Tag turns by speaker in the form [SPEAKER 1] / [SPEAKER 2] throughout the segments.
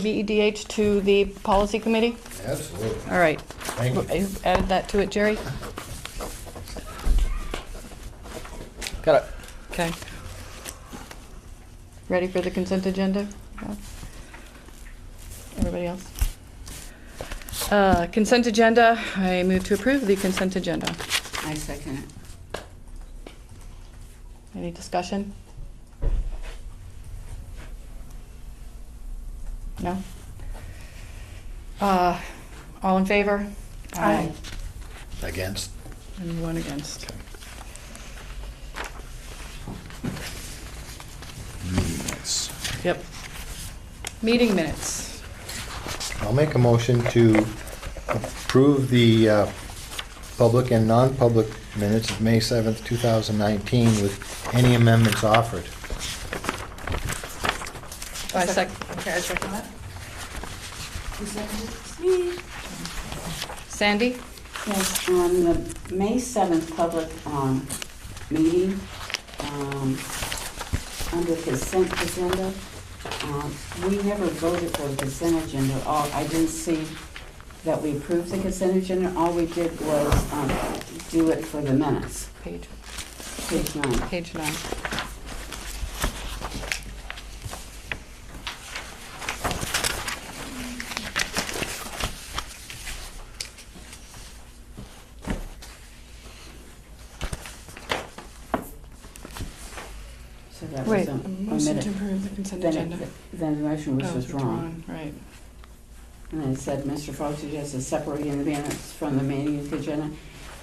[SPEAKER 1] BEDH E to the policy committee?
[SPEAKER 2] Absolutely.
[SPEAKER 1] All right.
[SPEAKER 2] Thank you.
[SPEAKER 1] You Added that to it, Jerry?
[SPEAKER 3] Got it.
[SPEAKER 1] Okay. Ready for the consent agenda? No? Everybody else? Uh, Consent agenda, I move to approve the consent agenda.
[SPEAKER 4] I second it.
[SPEAKER 1] Any discussion? No? Uh, All in favor?
[SPEAKER 4] Aye.
[SPEAKER 2] Against?
[SPEAKER 1] And one against.
[SPEAKER 2] Meetings.
[SPEAKER 1] Yep. Meeting minutes.
[SPEAKER 2] I'll make a motion to approve the uh, public and non-public minutes of May 7th, 2019 with any amendments offered.
[SPEAKER 1] I sec,
[SPEAKER 5] Okay, I second that.
[SPEAKER 1] Sandy?
[SPEAKER 4] Yes, on the May 7th public um, meeting, um, under consent agenda, um, we never voted for the consent agenda. All, I didn't see that we approved the consent agenda. All we did was um, do it for the minutes.
[SPEAKER 1] Page,
[SPEAKER 4] Page nine.
[SPEAKER 1] page nine.
[SPEAKER 4] So that was omitted.
[SPEAKER 1] approve the consent
[SPEAKER 4] Then, it- then the motion was
[SPEAKER 1] Oh,
[SPEAKER 4] withdrawn.
[SPEAKER 1] withdrawn, Right.
[SPEAKER 4] And it said, Mr. Fox suggested separating the minutes from the meeting agenda.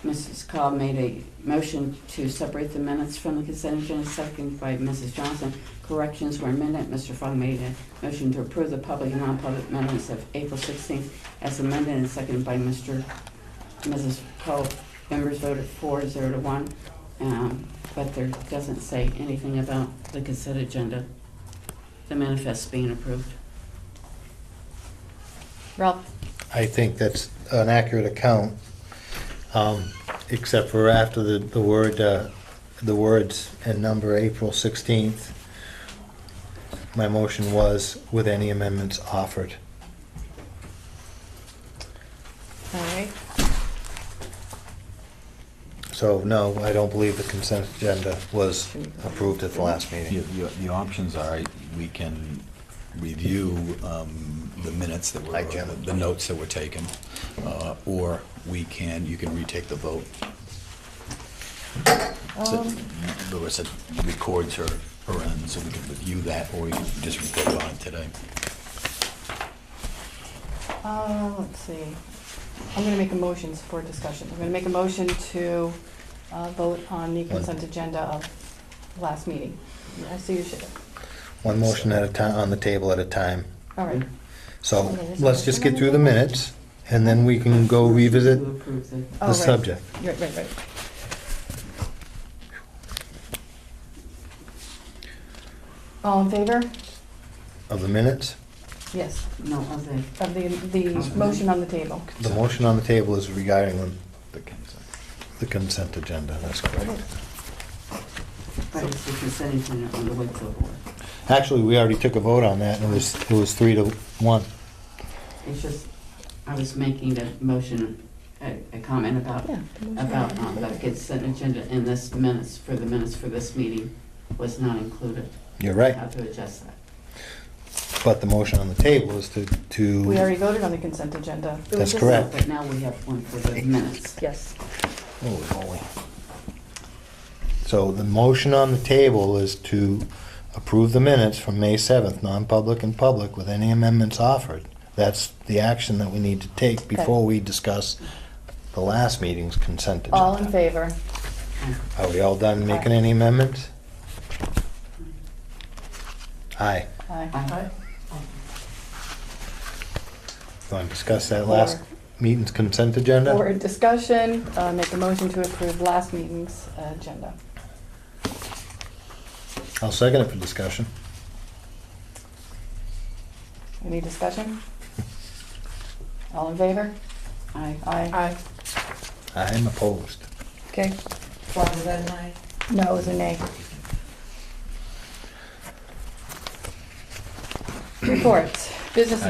[SPEAKER 4] Mrs. Cobb made a motion to separate the minutes from the consent agenda, seconded by Mrs. Johnson. Corrections were amended. Mr. Fogg made a motion to approve the public and non-public minutes of April 16th as amended and seconded by Mr. Mrs. Cobb. Members voted four, zero to one. Um, But there doesn't say anything about the consent agenda, the manifest being approved.
[SPEAKER 1] Ralph?
[SPEAKER 2] I think that's an accurate account, um, except for after the, the word, uh, the words and number April 16th. My motion was with any amendments offered.
[SPEAKER 1] All right.
[SPEAKER 2] So, no, I don't believe the consent agenda was approved at the last meeting.
[SPEAKER 6] The- The the options are, we can review um, the minutes that were,
[SPEAKER 2] Hi, Jim.
[SPEAKER 6] the notes that were taken, uh, or we can, you can retake the vote. So, Larissa records her, her end, so we can review that, or we can just vote on it today.
[SPEAKER 1] Uh, let's see. I'm gonna make a motion for discussion. I'm gonna make a motion to, uh, vote on the consent agenda of last meeting. I see you should,
[SPEAKER 2] One motion at a time, on the table at a time.
[SPEAKER 1] all right.
[SPEAKER 2] So, let's just get through the minutes, and then we can go revisit
[SPEAKER 4] To approve the
[SPEAKER 1] Oh,
[SPEAKER 2] the
[SPEAKER 1] right.
[SPEAKER 2] subject.
[SPEAKER 1] Right, right, right. All in favor?
[SPEAKER 2] of the minutes.
[SPEAKER 1] Yes,
[SPEAKER 4] No, other.
[SPEAKER 1] of the, the motion on the table.
[SPEAKER 2] The motion on the table is regarding the-
[SPEAKER 6] The consent.
[SPEAKER 2] the consent agenda, that's correct.
[SPEAKER 4] But it's the consent agenda on the Wakefield Board.
[SPEAKER 2] Actually, we already took a vote on that, and it was, it was three to one.
[SPEAKER 4] It's just, I was making a motion, a, a comment about,
[SPEAKER 1] Yeah.
[SPEAKER 4] about um, the consent agenda in this minutes, for the minutes for this meeting was not included.
[SPEAKER 2] You're right,
[SPEAKER 4] How to adjust that.
[SPEAKER 2] but the motion on the table is to,
[SPEAKER 1] We
[SPEAKER 2] to,
[SPEAKER 1] already voted on the consent agenda.
[SPEAKER 4] It
[SPEAKER 2] That's
[SPEAKER 4] was just-
[SPEAKER 2] correct.
[SPEAKER 4] But now we have one for the minutes.
[SPEAKER 1] Yes.
[SPEAKER 2] holy moly. So the motion on the table is to approve the minutes from May 7th, non-public and public, with any amendments offered. That's the action that we need to take before we discuss the last meeting's consent agenda.
[SPEAKER 1] All in favor?
[SPEAKER 2] Are we all done making any amendments? Aye.
[SPEAKER 1] Aye.
[SPEAKER 4] Aye.
[SPEAKER 2] Want to discuss that last meeting's consent agenda?
[SPEAKER 1] For discussion, uh, make a motion to approve last meeting's agenda.
[SPEAKER 2] I'll second it for discussion.
[SPEAKER 1] Any discussion? All in favor?
[SPEAKER 4] Aye.
[SPEAKER 1] Aye. Aye.
[SPEAKER 2] I'm opposed.
[SPEAKER 1] Okay.
[SPEAKER 5] Why was that an aye?
[SPEAKER 1] No, it was a nay. Reports, business